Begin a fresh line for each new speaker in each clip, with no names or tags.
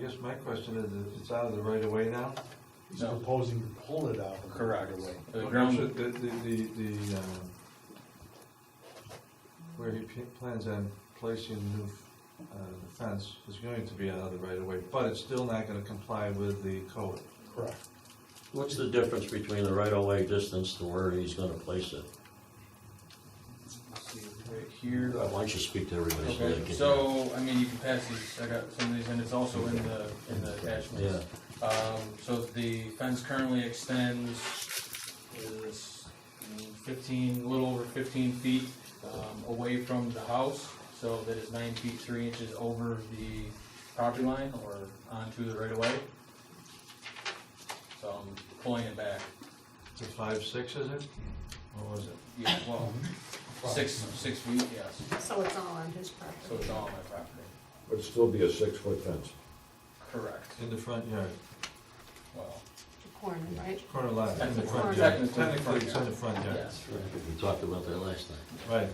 guess my question is, is it's out of the right of way now?
He's
No.
proposing to pull it out. of the
Correct.
right-of-way.
The
Okay,
ground-
so The, the, the, the, um, where he p- plans on placing the new, uh, the fence is going to be out of the right of way, but it's still not gonna comply with the code.
Correct.
What's the difference between the right-of-way distance to where he's gonna place it?
Right here.
Why don't you speak to everybody so they
Okay,
can.
so, I mean, you can pass these, I got some of these, and it's also in the, in the
Yeah,
attachments. Um, so the fence currently extends is fifteen, a little over fifteen feet, um, away from the house. So that is nine feet, three inches over the property line or onto the right of way. So I'm pulling it back,
It's a five, six, is it? What was it?
yeah, well,
Mm-hmm.
six, six feet, yes,
So it's all on his
so
property.
it's all on my property.
Would still be a six-foot fence.
Correct,
In the front yard,
well,
The corner, right?
corner lot, in the
Technically,
front yard.
technically,
Technically, it's in the front yard,
yes,
we talked about that last night.
right.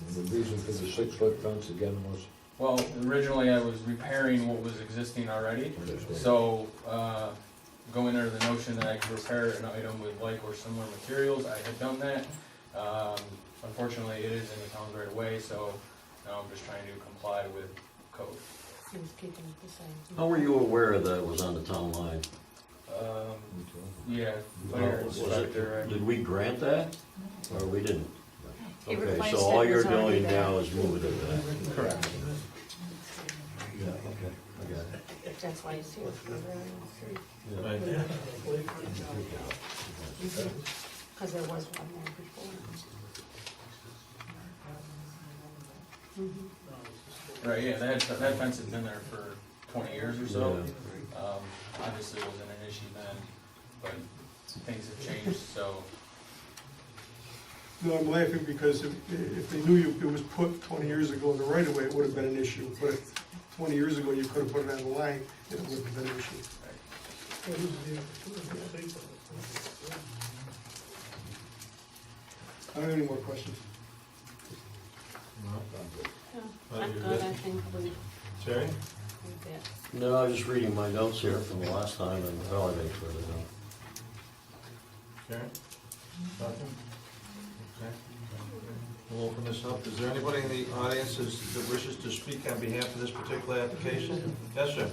And the reason for the six-foot fence again was,
well, originally I was repairing what was existing already, So, uh, going under the notion that I could repair an item with like or similar materials, I had done that. Um, unfortunately, it is in the town's right away, so now I'm just trying to comply with code.
He was keeping it the same.
How were you aware that it was on the town line?
Um, yeah, fire
Was it-
inspector, I-
Did we grant that, or we didn't?
He
Okay,
replaced
so
it,
all
it
you're
was already
doing
there.
now is moving it back.
correct,
Yeah, okay, I got it.
That's why he's here. for the variance.
Yeah.
Right.
Cause there was one there before. Mhm.
right, yeah, that, that fence has been there for twenty years or so.
Yeah.
Um, obviously it wasn't an issue then, but things have changed, so,
No, I'm laughing because if, if they knew you, it was put twenty years ago in the right of way, it would have been an issue. But if twenty years ago, you could have put it on the line, it would have been an issue. I don't have any more questions.
No.
Yeah,
Well,
I'm
you're
good,
good.
I think we, we
Terry?
did.
No, I was just reading my notes here from the last time and validating for it.
Karen? Nothing? Okay. We'll open this up. Is there anybody in the audience that's- that wishes to speak on behalf of this particular application? Yes, sir.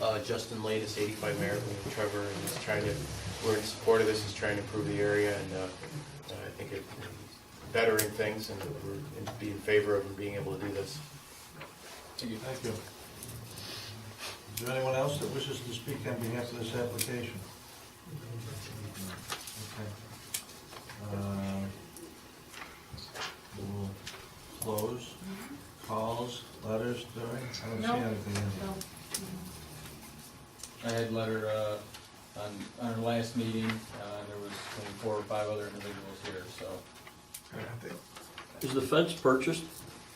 Uh, Justin Latest, 85 Merritt, with Trevor, and he's trying to, we're in support of this, he's trying to improve the area, and uh, I think it bettering things, and we're in- be in favor of him being able to do this.
Thank you. Is there anyone else that wishes to speak on behalf of this application? Okay. Um, We'll close calls, letters, Terry? I don't
No.
see anything in here.
So,
I had letter, uh, on, on our last meeting, uh, there was maybe four or five other individuals here, so,
Is the fence purchased?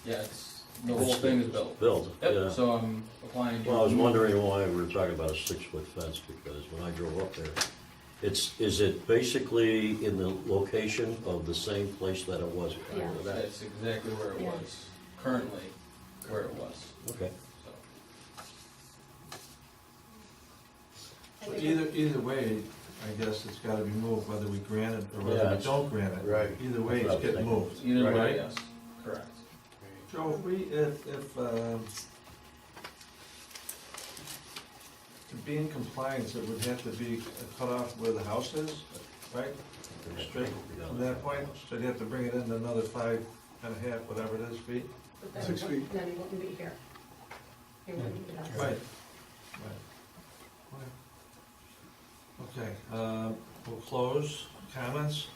yeah, it's, the whole thing is built.
Built, yeah.
Yep, so I'm applying. to-
Well, I was wondering why we were talking about a six-foot fence, because when I drove up there, it's, is it basically in the location of the same place that it was? prior to that?
That's exactly where it
Yeah.
was, currently where it was,
Okay.
so.
I
Well,
think-
Either, either way, I guess it's gotta be moved, whether we grant it or
Yeah,
whether we
it's-
don't grant it.
Right.
Either way, it's getting moved.
Either
Right.
way, yes, correct.
Joe, if we, if, if, um, to be in compliance, it would have to be cut off where the house is, right? Straight From that point, so you'd have to bring it in another five and a half, whatever it is, feet.
but then-
Six feet.
Then he wouldn't be here. He wouldn't be
Right,
outside.
right. Okay, um, we'll close, comments,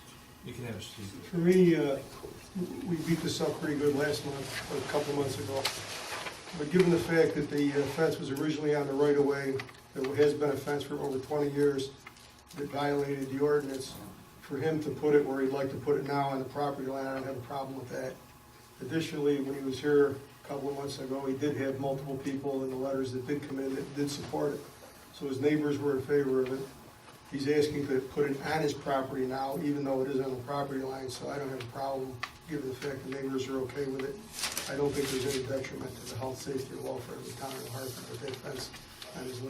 you can have a seat.
For me, uh, we beat this up pretty good last month, or a couple months ago. But given the fact that the uh, fence was originally on the right of way, there has been a fence for over twenty years that violated the ordinance, for him to put it where he'd like to put it now on the property line, I don't have a problem with that. Additionally, when he was here a couple of months ago, he did have multiple people in the letters that did come in that did support it. So his neighbors were in favor of it. He's asking to put it on his property now, even though it is on the property line, so I don't have a problem, given the fact the neighbors are okay with it. I don't think there's any detriment to the health, safety, or welfare of the town of Hartford with that fence That is